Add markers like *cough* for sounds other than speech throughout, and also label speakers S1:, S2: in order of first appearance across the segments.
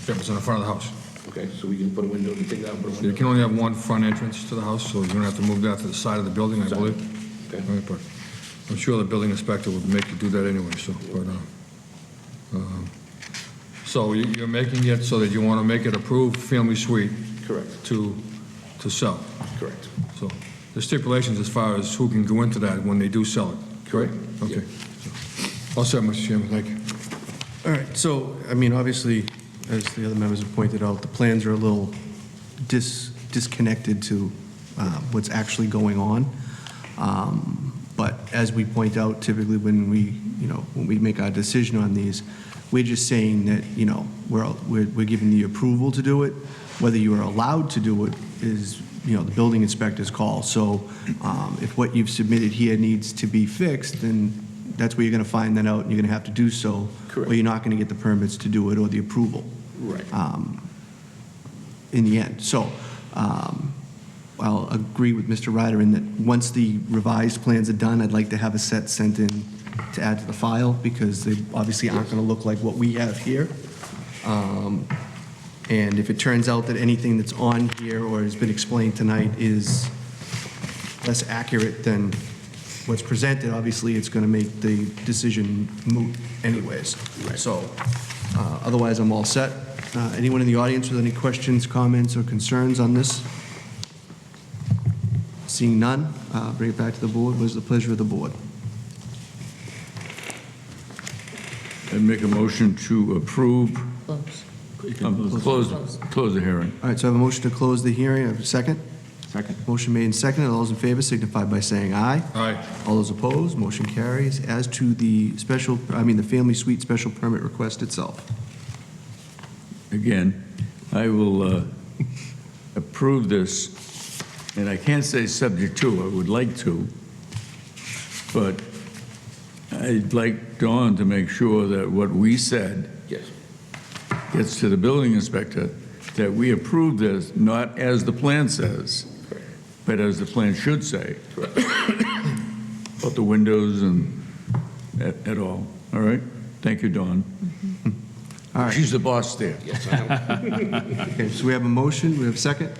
S1: Yeah, but it's in the front of the house.
S2: Okay, so we can put a window, we take that and put a
S1: You
S2: window.
S1: can only have one front entrance to the house, so you're gonna have to move that to the side of the building, I
S2: Side.
S1: believe.
S2: Okay.
S1: Right, but I'm sure the building inspector would make you do that anyway, so, but, uh, um, so you- you're making it so that you wanna make it approved family suite
S2: Correct,
S1: to, to sell.
S2: correct.
S1: So the stipulations as far as who can go into that when they do sell it, correct? Okay. All set, Mr. Chairman, thank you.
S3: All right, so, I mean, obviously, as the other members have pointed out, the plans are a little dis- disconnected to uh, what's actually going on. Um, But as we point out, typically when we, you know, when we make our decision on these, we're just saying that, you know, we're, we're we're giving the approval to do it. Whether you are allowed to do it is, you know, the building inspector's call. So um, if what you've submitted here needs to be fixed, then that's where you're going to find that out, and you're going to have to do so.
S2: Correct.
S3: Or you're not going to get the permits to do it or the approval
S2: Right.
S3: in the end. So um, I'll agree with Mr. Ryder in that once the revised plans are done, I'd like to have a set sent in to add to the file, because they obviously aren't going to look like what we have here. Um, And if it turns out that anything that's on here or has been explained tonight is less accurate than what's presented, obviously, it's going to make the decision moot anyways. So uh, otherwise, I'm all set. Uh, Anyone in the audience with any questions, comments, or concerns on this? Seeing none, uh, bring it back to the board. What is the pleasure of the board?
S4: I'd make a motion to approve,
S5: Close.
S4: um, close, close the hearing.
S3: All right, so I have a motion to close the hearing. I have a second.
S4: Second.
S3: Motion made and seconded. All those in favor signify by saying aye.
S1: Aye.
S3: All those opposed, motion carries. As to the special, I mean, the family suite special permit request itself.
S4: Again, I will uh, approve this, and I can't say subject to, I would like to, but I'd like Dawn to make sure that what we said
S2: Yes,
S4: gets to the building inspector, that we approve this, not as the plan says, but as the plan should say. About the windows and et et all, all right? Thank you, Dawn.
S3: Mm-hmm. All right.
S4: She's the boss there.
S2: yes, I am.
S3: Okay, so we have a motion, we have a second?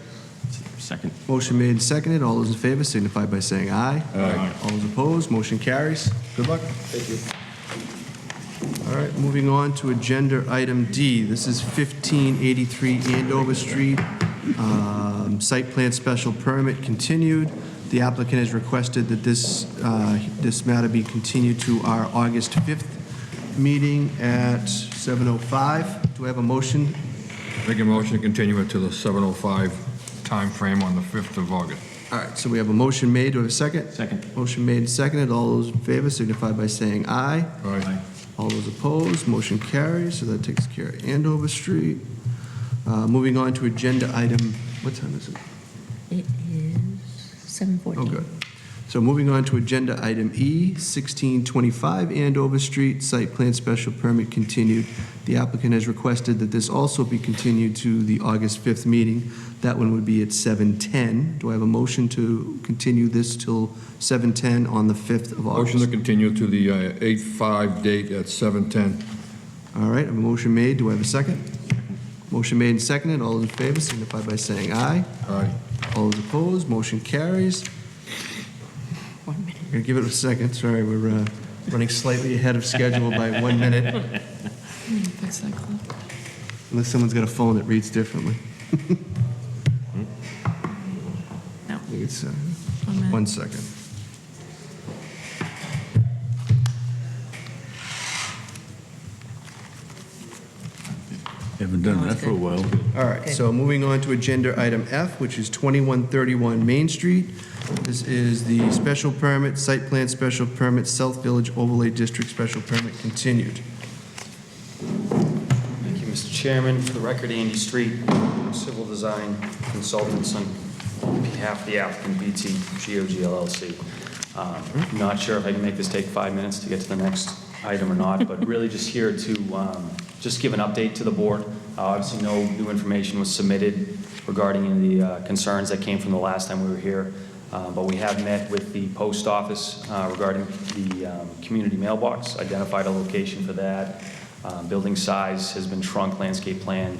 S6: Second.
S3: Motion made and seconded, all those in favor signify by saying aye. Aye. All those opposed, motion carries. Good luck.
S2: Thank you.
S3: All right, moving on to agenda item D. This is 1583 Andover Street, um, site plan special permit continued. The applicant has requested that this, uh, this matter be continued to our August 5th meeting at 7:05. Do I have a motion?
S1: Make a motion to continue it to the 7:05 timeframe on the 5th of August.
S3: All right, so we have a motion made, do I have a second?
S6: Second.
S3: Motion made and seconded, all those in favor signify by saying aye.
S1: Aye.
S3: All those opposed, motion carries, so that takes care of Andover Street. Uh, Moving on to agenda item, what time is it?
S5: It is seven
S3: Oh,
S5: fourteen.
S3: good. So moving on to agenda item E, 1625 Andover Street, site plan special permit continued. The applicant has requested that this also be continued to the August 5th meeting. That one would be at 7:10. Do I have a motion to continue this till 7:10 on the 5th of August?
S1: Motion to continue to the uh, 8/5 date at 7:10.
S3: All right, a motion made, do I have a second? Motion made and seconded, all in favor signify by saying aye.
S1: Aye.
S3: All those opposed, motion carries.
S5: One minute.
S3: I'm gonna give it a second, sorry, we're uh, running slightly ahead of schedule by one minute,
S5: That's not close.
S3: unless someone's got a phone that reads differently.
S5: *laughs* No.
S3: I think It's, uh,
S5: One minute.
S3: one second.
S4: Haven't done that for a while.
S3: All right, so moving on to agenda item F, which is 2131 Main Street. This is the special permit, site plan special permit, South Village Overlay District special permit continued.
S7: Thank you, Mr. Chairman. For the record, Andy Street, Civil Design Consultants on behalf of the applicant, BT GOG LLC. Um, Not sure if I can make this take five minutes to get to the next item or not, but really just here to um, just give an update to the board. Uh, Obviously, no new information was submitted regarding any of the uh, concerns that came from the last time we were here, Uh, but we have met with the post office uh, regarding the um, community mailbox, identified a location for that. Uh, Building size has been shrunk, landscape plan